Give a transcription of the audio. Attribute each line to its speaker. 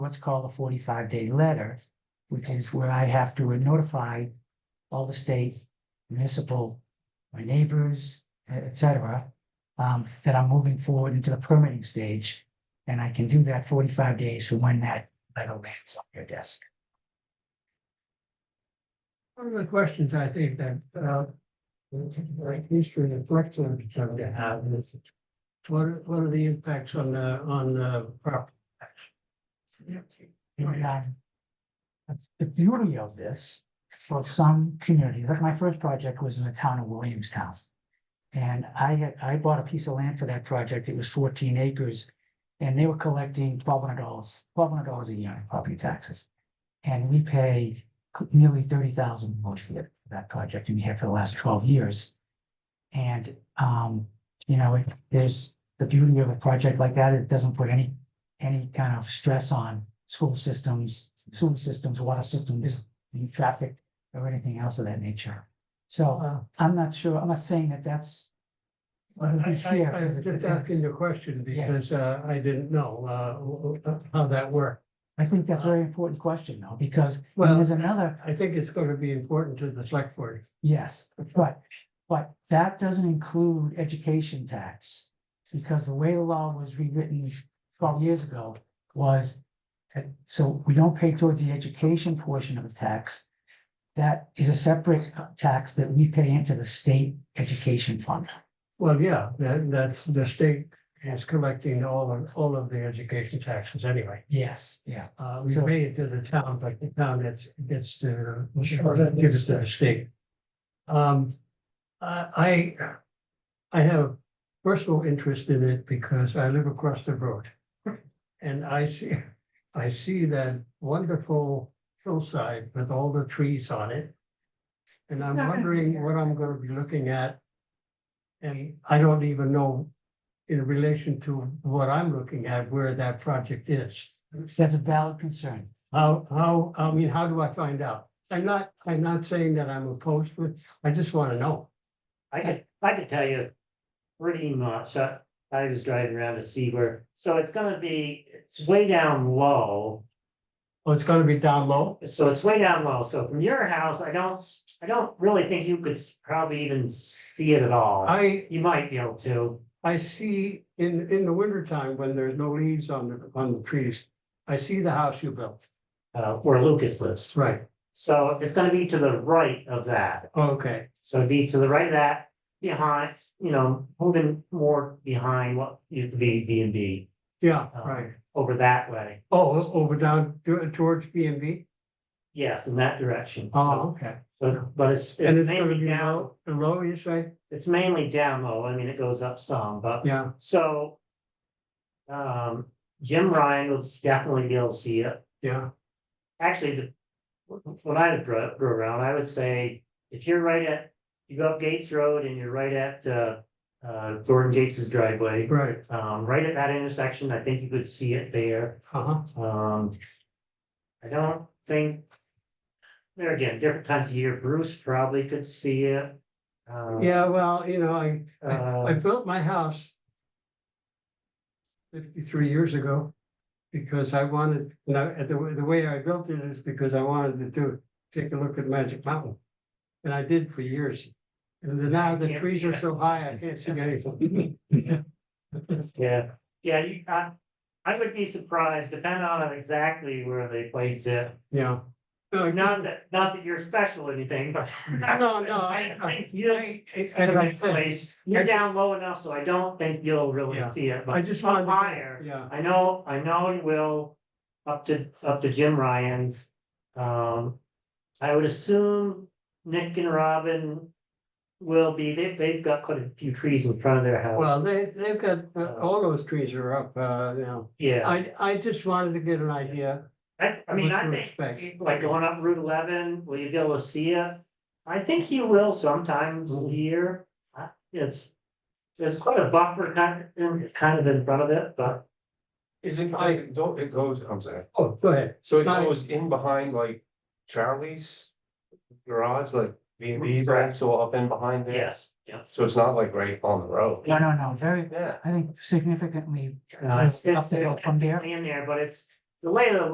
Speaker 1: what's called a forty-five day letter, which is where I have to notify all the state, municipal, my neighbors, e, et cetera, um, that I'm moving forward into the permitting stage. And I can do that forty-five days from when that letter lands on your desk.
Speaker 2: One of the questions I think that, uh, like history and Brooklyn come to have is what are, what are the impacts on, uh, on, uh, property?
Speaker 1: And, um, The beauty of this, for some communities, like my first project was in the town of Williamstown. And I had, I bought a piece of land for that project, it was fourteen acres, and they were collecting twelve hundred dollars, twelve hundred dollars a year in property taxes. And we pay c- nearly thirty thousand most year for that project, and we have for the last twelve years. And, um, you know, it- there's, the beauty of a project like that, it doesn't put any any kind of stress on school systems, sewer systems, water systems, any traffic or anything else of that nature. So uh,
Speaker 2: Well,
Speaker 1: I'm not sure, I'm not saying that that's.
Speaker 2: I,
Speaker 1: what we
Speaker 2: I,
Speaker 1: hear,
Speaker 2: I
Speaker 1: is
Speaker 2: was
Speaker 1: it-
Speaker 2: just
Speaker 1: that's-
Speaker 2: asking the question
Speaker 1: Yeah.
Speaker 2: because, uh, I didn't know, uh, w- w- how that worked.
Speaker 1: I think that's a very important question though, because and
Speaker 2: Well,
Speaker 1: there's another,
Speaker 2: I think it's going to be important to the select board.
Speaker 1: yes, but, but that doesn't include education tax. Because the way the law was rewritten twelve years ago was, that- so we don't pay towards the education portion of the tax. That is a separate tax that we pay into the state education fund.
Speaker 2: Well, yeah, that, that's, the state is collecting all of, all of the education taxes anyway.
Speaker 1: Yes, yeah.
Speaker 2: Uh, we
Speaker 1: So-
Speaker 2: pay it to the town, but the town gets, gets to,
Speaker 1: Sure.
Speaker 2: gives to the state. Um, I, I- I have personal interest in it because I live across the road. And I see, I see that wonderful hillside with all the trees on it. And
Speaker 3: It's
Speaker 2: I'm
Speaker 3: not gonna be
Speaker 2: wondering
Speaker 3: there.
Speaker 2: what I'm gonna be looking at. And I don't even know in relation to what I'm looking at, where that project is.
Speaker 1: That's a valid concern.
Speaker 2: How, how, I mean, how do I find out? I'm not, I'm not saying that I'm opposed to it. I just want to know.
Speaker 4: I could, I could tell you pretty much, I, I was driving around to see where, so it's gonna be, it's way down low.
Speaker 2: Oh, it's gonna be down low?
Speaker 4: So it's way down low, so from your house, I don't, I don't really think you could probably even see it at all.
Speaker 2: I,
Speaker 4: You might be able to,
Speaker 2: I see in, in the wintertime when there's no leaves on the, on the trees, I see the house you built.
Speaker 4: uh, where Lucas lives.
Speaker 2: Right.
Speaker 4: So it's gonna be to the right of that,
Speaker 2: Okay,
Speaker 4: so it'd be to the right of that, behind, you know, moving more behind what used to be B and B,
Speaker 2: yeah, right.
Speaker 4: over that way.
Speaker 2: Oh, it's over down to- towards B and B?
Speaker 4: Yes, in that direction.
Speaker 2: Oh, okay.
Speaker 4: So, but it's.
Speaker 2: And it's gonna
Speaker 4: mainly
Speaker 2: be
Speaker 4: down-
Speaker 2: low, low, you say?
Speaker 4: It's mainly down low, I mean, it goes up some, but,
Speaker 2: Yeah,
Speaker 4: so. Um, Jim Ryan will definitely be able to see it,
Speaker 2: yeah,
Speaker 4: actually, the. When I drove, drove around, I would say, if you're right at, you go up Gates Road and you're right at, uh. Uh, Thornton Gates' driveway,
Speaker 2: right.
Speaker 4: um, right at that intersection, I think you could see it there.
Speaker 2: Uh-huh.
Speaker 4: Um. I don't think. There again, different times of year, Bruce probably could see it. Um,
Speaker 2: Yeah, well, you know, I, I, I
Speaker 4: Uh,
Speaker 2: built my house fifty-three years ago because I wanted, now, and the, way- the way I built it is because I wanted to do, take a look at Magic Mountain. And I did for years. And then now the
Speaker 4: Can't
Speaker 2: trees
Speaker 4: see
Speaker 2: are
Speaker 4: it.
Speaker 2: so high, I can't see anything.
Speaker 4: Yeah, yeah, you, I, I would be surprised, depending on exactly where they place it.
Speaker 2: Yeah. No, no,
Speaker 4: Not that, not that you're special or anything, but.
Speaker 2: no, no,
Speaker 4: Oh, I
Speaker 2: I,
Speaker 4: think you,
Speaker 2: I, it's
Speaker 4: the
Speaker 2: kind
Speaker 4: right
Speaker 2: of like-
Speaker 4: place, you're down low enough, so I don't think you'll really
Speaker 2: Yeah.
Speaker 4: see it,
Speaker 2: I
Speaker 4: but
Speaker 2: just
Speaker 4: up
Speaker 2: wanted. to-
Speaker 4: higher.
Speaker 2: Yeah,
Speaker 4: I know, I know it will, up to, up to Jim Ryan's. Um, I would assume Nick and Robin will be, they, they've got quite a few trees in front of their house.
Speaker 2: well, they, they've got, uh, all those trees are up, uh, now.
Speaker 4: Yeah.
Speaker 2: I, I just wanted to get an idea.
Speaker 4: I, I mean,
Speaker 2: What
Speaker 4: I
Speaker 2: to
Speaker 4: think,
Speaker 2: expect.
Speaker 4: like going up Route eleven, will you be able to see it? I think you will sometimes
Speaker 1: Mm-hmm.
Speaker 2: Mhm.
Speaker 4: here. I- It's, there's quite a buffer kind, in- kind of in front of it, but
Speaker 5: Is it,
Speaker 2: I-
Speaker 5: is it, don't, it goes, I'm sorry,
Speaker 2: Oh, go ahead.
Speaker 5: so it
Speaker 2: I-
Speaker 5: goes in behind like Charlie's garage, like B and B's,
Speaker 4: Right.
Speaker 5: right, so up in behind there?
Speaker 4: yes, yeah.
Speaker 5: So it's not like right on the road?
Speaker 1: No, no, no, very,
Speaker 5: Yeah.
Speaker 1: I think significantly
Speaker 4: Uh, it's-
Speaker 1: up the hill
Speaker 4: it's
Speaker 1: from there.
Speaker 4: In there, but it's, the lay of the